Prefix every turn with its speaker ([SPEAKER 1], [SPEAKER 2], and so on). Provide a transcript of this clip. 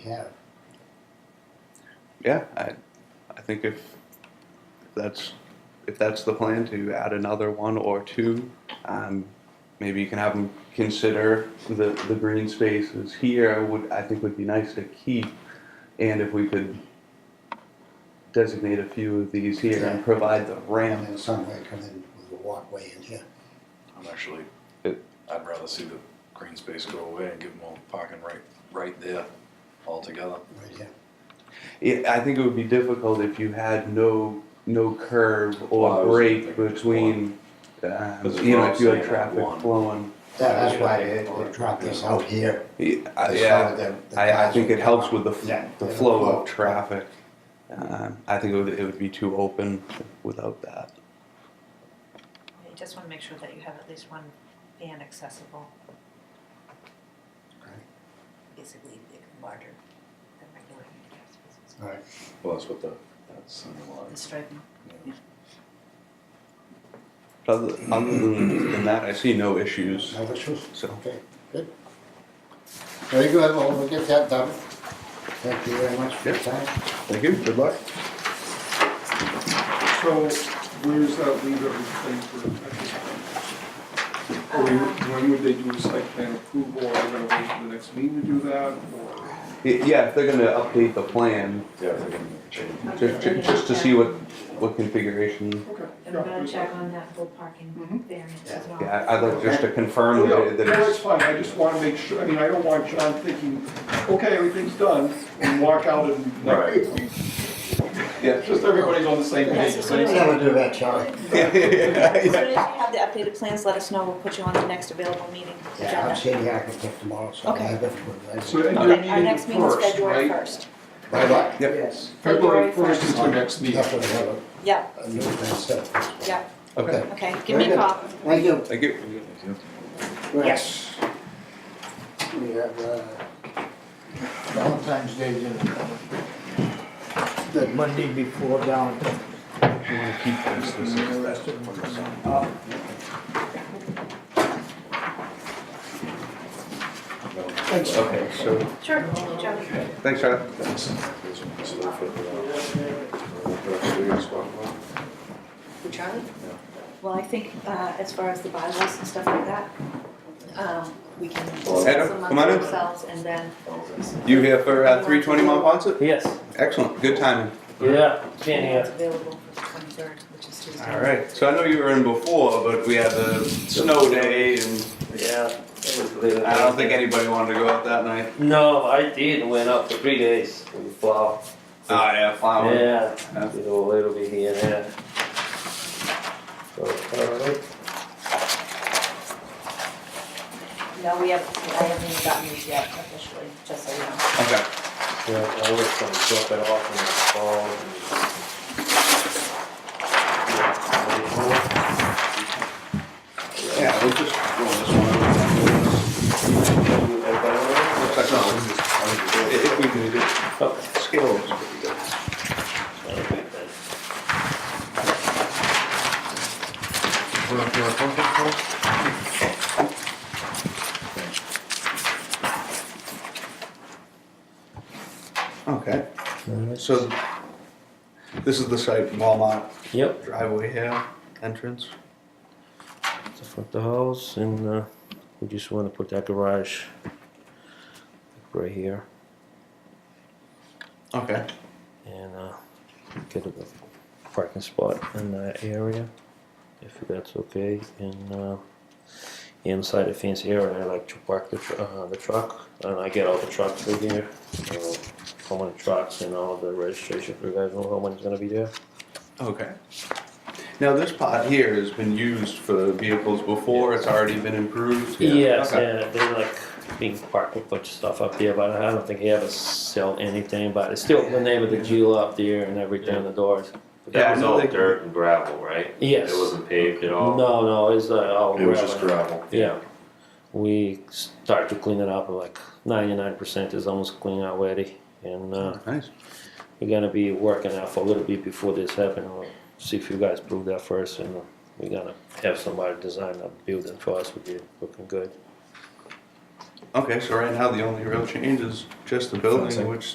[SPEAKER 1] have.
[SPEAKER 2] Yeah, I, I think if if that's if that's the plan to add another one or two, um, maybe you can have them consider the the green spaces here. Would I think would be nice to keep, and if we could designate a few of these here and provide the
[SPEAKER 1] And
[SPEAKER 2] ramp.
[SPEAKER 1] then some way come in with a walkway in here.
[SPEAKER 3] I'm actually,
[SPEAKER 2] It-
[SPEAKER 3] I'd rather see the green space go away and give them all parking right, right there altogether.
[SPEAKER 1] right here.
[SPEAKER 2] Yeah, I think it would be difficult if you had no no curve
[SPEAKER 3] Well, I
[SPEAKER 2] or
[SPEAKER 3] was
[SPEAKER 2] break
[SPEAKER 3] thinking
[SPEAKER 2] between. Um,
[SPEAKER 3] This is
[SPEAKER 2] you
[SPEAKER 3] what
[SPEAKER 2] know,
[SPEAKER 3] I'm
[SPEAKER 2] if you had
[SPEAKER 3] saying,
[SPEAKER 2] traffic
[SPEAKER 3] one.
[SPEAKER 2] flowing.
[SPEAKER 1] That, that's why they, they dropped this out here.
[SPEAKER 2] Yeah, I-
[SPEAKER 1] They
[SPEAKER 2] yeah.
[SPEAKER 1] showed that the
[SPEAKER 2] I, I
[SPEAKER 1] cars
[SPEAKER 2] think
[SPEAKER 1] would
[SPEAKER 2] it helps
[SPEAKER 1] come
[SPEAKER 2] with
[SPEAKER 1] up.
[SPEAKER 2] the, f-
[SPEAKER 1] Yeah,
[SPEAKER 2] the
[SPEAKER 1] yeah,
[SPEAKER 2] flow of traffic. Um, I think it would, it would be too open without that.
[SPEAKER 4] You just want to make sure that you have at least one van accessible,
[SPEAKER 1] Okay,
[SPEAKER 4] basically big, larger than regular handicap spaces.
[SPEAKER 1] All right,
[SPEAKER 3] Well, that's what the, that's in the
[SPEAKER 4] The
[SPEAKER 3] line.
[SPEAKER 4] striping,
[SPEAKER 2] But other, other than, than that, I see no issues.
[SPEAKER 1] no issues?
[SPEAKER 2] So.
[SPEAKER 1] Okay, good. Very good, well, we'll get that done. Thank you very much for your
[SPEAKER 2] Yep.
[SPEAKER 1] time.
[SPEAKER 2] Thank you. Good luck.
[SPEAKER 5] So where does that leave everything for at this point? Or you- when would they do a site plan approval, are they gonna wait for the next meeting to do that, or?
[SPEAKER 2] Yeah, if they're going to update the plan,
[SPEAKER 3] Yeah, if they can change.
[SPEAKER 2] just, ju- just to see what, what configuration.
[SPEAKER 5] Okay.
[SPEAKER 4] and we're gonna check on that full parking variance as well.
[SPEAKER 2] Yeah, I- I'd like just to confirm that,
[SPEAKER 5] No,
[SPEAKER 2] it- that
[SPEAKER 5] no, it's
[SPEAKER 2] it's.
[SPEAKER 5] fine, I just wanna make sure, I mean, I don't want John thinking, okay, everything's done, and walk out and.
[SPEAKER 3] Right.
[SPEAKER 2] Yeah.
[SPEAKER 5] Just everybody's on the same page,
[SPEAKER 4] That's
[SPEAKER 5] right?
[SPEAKER 4] what
[SPEAKER 1] Never do that, Charlie.
[SPEAKER 2] Yeah, yeah,
[SPEAKER 4] As soon
[SPEAKER 2] yeah.
[SPEAKER 4] as you have the updated plans, let us know, we'll put you on the next available meeting
[SPEAKER 1] Yeah, I'm
[SPEAKER 4] agenda.
[SPEAKER 1] seeing the architect tomorrow, so I
[SPEAKER 4] Okay.
[SPEAKER 1] have it.
[SPEAKER 5] So,
[SPEAKER 2] uh,
[SPEAKER 5] and
[SPEAKER 4] Okay,
[SPEAKER 5] your
[SPEAKER 4] our next meeting is
[SPEAKER 5] first,
[SPEAKER 4] February
[SPEAKER 5] right?
[SPEAKER 4] first.
[SPEAKER 1] Bye bye.
[SPEAKER 2] Yep.
[SPEAKER 1] Yes.
[SPEAKER 5] February
[SPEAKER 4] February
[SPEAKER 5] first is
[SPEAKER 1] That's
[SPEAKER 5] the next meeting.
[SPEAKER 1] what we have a-
[SPEAKER 4] Yeah,
[SPEAKER 1] a new plan set.
[SPEAKER 4] yeah,
[SPEAKER 2] Okay,
[SPEAKER 4] okay, give me a
[SPEAKER 1] Very good.
[SPEAKER 4] call.
[SPEAKER 1] Thank you.
[SPEAKER 2] thank you.
[SPEAKER 1] Yes. We have uh, Valentine's Day dinner. The Monday before Valentine's.
[SPEAKER 5] Thanks.
[SPEAKER 2] Okay, so,
[SPEAKER 4] Sure, Joe.
[SPEAKER 2] thanks, Charlie.
[SPEAKER 3] That's- that's what- so they'll fit the-
[SPEAKER 4] Who, Charlie? Well, I think, uh, as far as the bylaws and stuff like that, um, we can discuss
[SPEAKER 2] Adam,
[SPEAKER 4] them
[SPEAKER 2] come on
[SPEAKER 4] among
[SPEAKER 2] in.
[SPEAKER 4] ourselves and then
[SPEAKER 2] You here for uh, 320 Mont Ponce?
[SPEAKER 6] Yes.
[SPEAKER 2] Excellent, good timing.
[SPEAKER 6] Yeah. Been
[SPEAKER 4] it's
[SPEAKER 6] here.
[SPEAKER 4] available for the twenty-third, which is Tuesday.
[SPEAKER 2] All right. So I know you were in before, but we had the snow day, and
[SPEAKER 6] Yeah. It was little
[SPEAKER 2] I don't think anybody wanted to go out that night.
[SPEAKER 6] No, I did. Went up for three days with plow.
[SPEAKER 2] Oh yeah, flower.
[SPEAKER 6] Yeah.
[SPEAKER 2] Yeah.
[SPEAKER 6] Did a little bit here and there. So, all right.
[SPEAKER 4] No, we haven't, I haven't even gotten these yet officially, just so you know.
[SPEAKER 2] Okay.
[SPEAKER 6] Yeah, I was gonna drop it off in the fall. and-
[SPEAKER 2] Yeah, we'll just go this one. Looks like no. If we can get
[SPEAKER 6] Okay.
[SPEAKER 2] skills. pretty good. Okay. So this is the site Walmart
[SPEAKER 6] Yep.
[SPEAKER 2] driveway here entrance.
[SPEAKER 6] the front of the house and uh, we just want to put that garage right here
[SPEAKER 2] Okay.
[SPEAKER 6] and uh, get a parking spot in that area if that's okay and uh, inside the fence area I like to park the, tr- uh, the truck and I get all the trucks through here so how many trucks and all the registration you guys know how many's gonna be there
[SPEAKER 2] Okay. Now this pot here has been used for vehicles before. It's already been improved.
[SPEAKER 6] Yes,
[SPEAKER 2] Okay.
[SPEAKER 6] yeah, they like being parked with a bunch of stuff up there, but I don't think he ever sell anything, but it's still the name of the deal up there and everything on the doors.
[SPEAKER 7] But
[SPEAKER 2] Yeah,
[SPEAKER 7] that was
[SPEAKER 2] no,
[SPEAKER 7] all
[SPEAKER 2] they-
[SPEAKER 7] dirt and gravel, right?
[SPEAKER 6] Yes.
[SPEAKER 7] It wasn't paved at all.
[SPEAKER 6] No, no, it's uh, all.
[SPEAKER 3] It was just
[SPEAKER 6] gravel.
[SPEAKER 3] gravel.
[SPEAKER 6] Yeah. We start to clean it up, like ninety-nine percent is almost clean already. And, uh,
[SPEAKER 2] Nice.
[SPEAKER 6] we're gonna be working out for a little bit before this happens. We'll see if you guys prove that first and we're gonna have somebody design a building for us, we'll be looking good.
[SPEAKER 2] Okay, so right now the only real change is just the building, which